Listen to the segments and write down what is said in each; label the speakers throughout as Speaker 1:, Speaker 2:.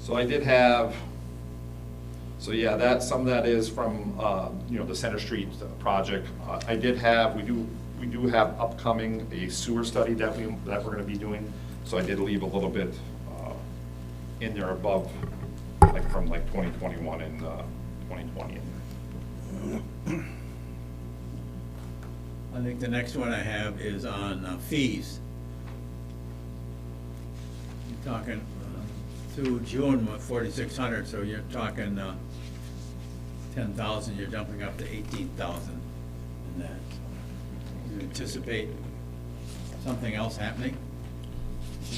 Speaker 1: So I did have, so yeah, that, some of that is from, uh, you know, the Center Street project. Uh, I did have, we do, we do have upcoming a sewer study that we, that we're gonna be doing, so I did leave a little bit uh, in there above, like from like 2021 and uh, 2020 in there.
Speaker 2: I think the next one I have is on uh, fees. You're talking uh, through June, forty-six hundred, so you're talking uh, ten thousand, you're dumping up to eighteen thousand in that. You anticipate something else happening?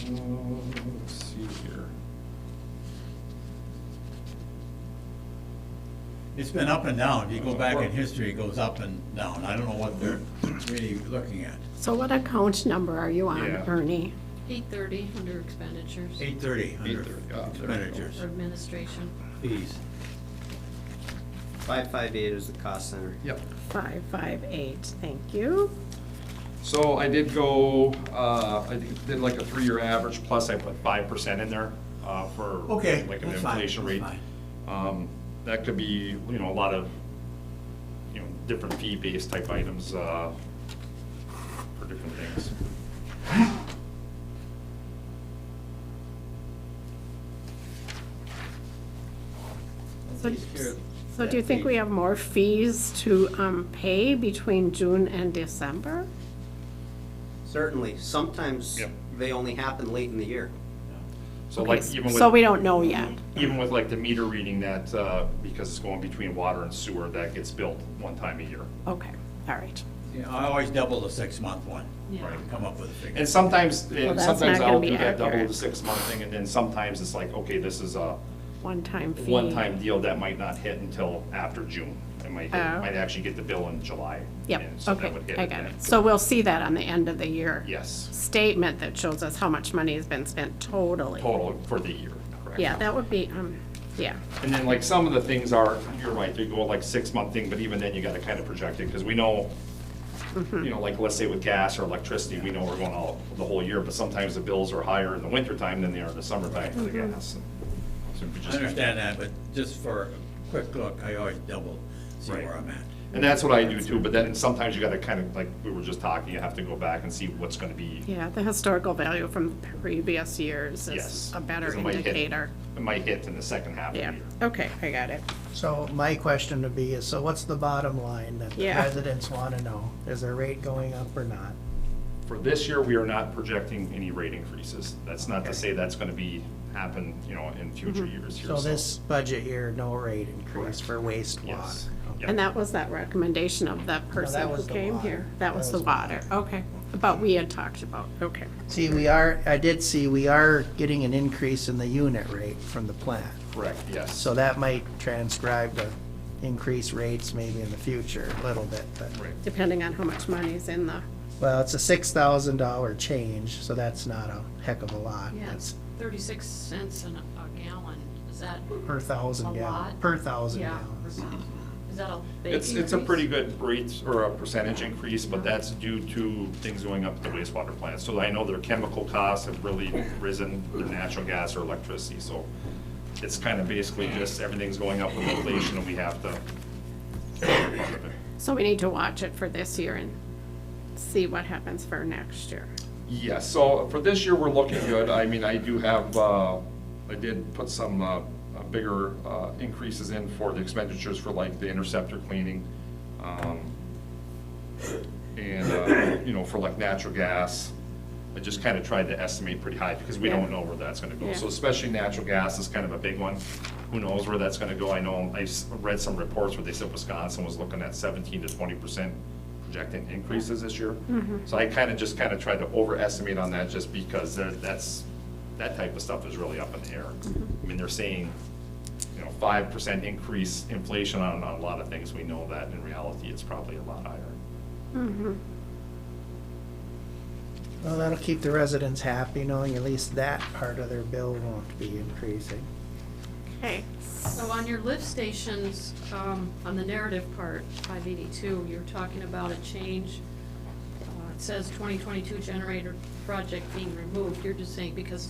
Speaker 1: Uh, Let's see here.
Speaker 2: It's been up and down. If you go back
Speaker 1: Well-
Speaker 2: in history, it goes up and down. I don't know what they're really looking at.
Speaker 3: So what account number are you on,
Speaker 1: Yeah.
Speaker 3: Ernie?
Speaker 4: Eight thirty under expenditures
Speaker 2: Eight thirty under
Speaker 1: 830, yeah, oh, there we go.
Speaker 2: expenditures,
Speaker 4: or administration.
Speaker 2: fees.
Speaker 5: 558 is the cost center.
Speaker 1: Yep.
Speaker 3: 558, thank you.
Speaker 1: So I did go, uh, I did- did like a three-year average, plus I put five percent in there, uh, for.
Speaker 2: Okay,
Speaker 1: Like an
Speaker 2: that's fine,
Speaker 1: inflation
Speaker 2: that's
Speaker 1: rate.
Speaker 2: fine.
Speaker 1: Um, that could be, you know, a lot of, you know, different fee-based type items, uh, for different things.
Speaker 3: So
Speaker 2: Fees here.
Speaker 3: so do you think we have more fees to um, pay between June and December?
Speaker 5: Certainly, sometimes
Speaker 1: Yep.
Speaker 5: they only happen late in the year.
Speaker 1: So
Speaker 3: Okay,
Speaker 1: like
Speaker 3: s-
Speaker 1: even with.
Speaker 3: So we don't know yet.
Speaker 1: Even with like the meter reading that, uh, because it's going between water and sewer, that gets billed one time a year.
Speaker 3: Okay, all right.
Speaker 2: Yeah, I always double the six-month one.
Speaker 4: Yeah.
Speaker 2: Right, Come up with a figure.
Speaker 1: And sometimes,
Speaker 3: that's
Speaker 1: sometimes
Speaker 3: not gonna
Speaker 1: I'll
Speaker 3: be
Speaker 1: do that double
Speaker 3: accurate.
Speaker 1: the six-month thing, and then sometimes it's like, okay, this is a
Speaker 3: One-time fee.
Speaker 1: one-time deal that might not hit until after June. It might, it
Speaker 3: Oh.
Speaker 1: might actually get the bill in July.
Speaker 3: Yep,
Speaker 1: and so that
Speaker 3: okay,
Speaker 1: would hit
Speaker 3: I
Speaker 1: it
Speaker 3: got
Speaker 1: then.
Speaker 3: it. So we'll see that on the end of the year.
Speaker 1: Yes,
Speaker 3: Statement that shows us how much money has been spent totally.
Speaker 1: total for the year, correct.
Speaker 3: Yeah, that would be, um, yeah,
Speaker 1: And then like some of the things are, you're right, they go like six-month thing, but even then you gotta kind of project it, because we know,
Speaker 3: Mm-hmm.
Speaker 1: you know, like let's say with gas or electricity, we know we're going all, the whole year, but sometimes the bills are higher in the wintertime than they are in the summertime for the
Speaker 3: Mm-hmm.
Speaker 1: gas. So we
Speaker 2: I
Speaker 1: just-
Speaker 2: understand that, but just for a quick look, I always double, see
Speaker 1: Right.
Speaker 2: where I'm at.
Speaker 1: And that's what I do too, but then sometimes you gotta kind of, like we were just talking, you have to go back and see what's gonna be.
Speaker 3: yeah, the historical value from previous years is
Speaker 1: Yes.
Speaker 3: a better
Speaker 1: 'cause it might hit-
Speaker 3: indicator.
Speaker 1: It might hit in the second half of the
Speaker 3: Yeah,
Speaker 1: year.
Speaker 3: okay, I got it.
Speaker 6: So my question would be, is so what's the bottom line that the
Speaker 3: Yeah.
Speaker 6: residents want to know? Is their rate going up or not?
Speaker 1: For this year, we are not projecting any rate increases. That's not to say that's gonna be, happen, you know, in future
Speaker 3: Mm-hmm.
Speaker 1: years here.
Speaker 6: So this budget year, no rate
Speaker 1: Correct.
Speaker 6: increase for
Speaker 1: Yes.
Speaker 6: wastewater.
Speaker 1: Yep.
Speaker 3: And that was that recommendation of that person who
Speaker 6: was the
Speaker 3: came
Speaker 6: water.
Speaker 3: here? That was the water, okay. But we had talked about, okay.
Speaker 6: See, we are, I did see, we are getting an increase in the unit rate from the plant.
Speaker 1: Correct, yes.
Speaker 6: So that might transcribe to increased rates maybe in the future a little bit, but.
Speaker 1: Right.
Speaker 3: Depending on how much money's in the,
Speaker 6: Well, it's a six thousand dollar change, so that's not a heck of a lot.
Speaker 4: Yeah,
Speaker 6: That's
Speaker 4: it's thirty-six cents an- a gallon. Is that?
Speaker 6: per
Speaker 4: A
Speaker 6: thousand gallon,
Speaker 4: lot?
Speaker 6: per thousand
Speaker 4: Yeah.
Speaker 6: gallons.
Speaker 4: Is that a big
Speaker 1: It's, it's a
Speaker 4: increase?
Speaker 1: pretty good rate or a percentage increase, but
Speaker 3: Mm-hmm.
Speaker 1: that's due to things going up at the wastewater plant. So I know their chemical costs have really risen, their natural gas or electricity, so it's kind of basically just everything's going up with inflation and we have to.
Speaker 3: so we need to watch it for this year and see what happens for next year.
Speaker 1: Yeah, so for this year, we're looking good. I mean, I do have, uh, I did put some uh, uh, bigger uh, increases in for the expenditures for like the interceptor cleaning. um, And, uh, you know, for like natural gas, I just kind of tried to estimate pretty high because we don't know where that's going to go.
Speaker 3: Yeah.
Speaker 1: So especially natural gas is kind of a big one. Who knows where that's going to go? I know, I s- read some reports where they said Wisconsin was looking at 17 to 20 percent projected increases this year. So I kind of just kind of tried to overestimate on that just because there- that's, that type of stuff is really up in the air. I mean, they're saying, you know, 5% increase inflation on on a lot of things. We know that in reality, it's probably a lot higher.
Speaker 4: Mm-hmm.
Speaker 6: Well, that'll keep the residents happy, knowing at least that part of their bill won't be increasing.
Speaker 3: Okay,
Speaker 4: So on your lift stations, um, on the narrative part, five eighty-two, you're talking about a change. Uh, It says twenty twenty-two generator project being removed. You're just saying because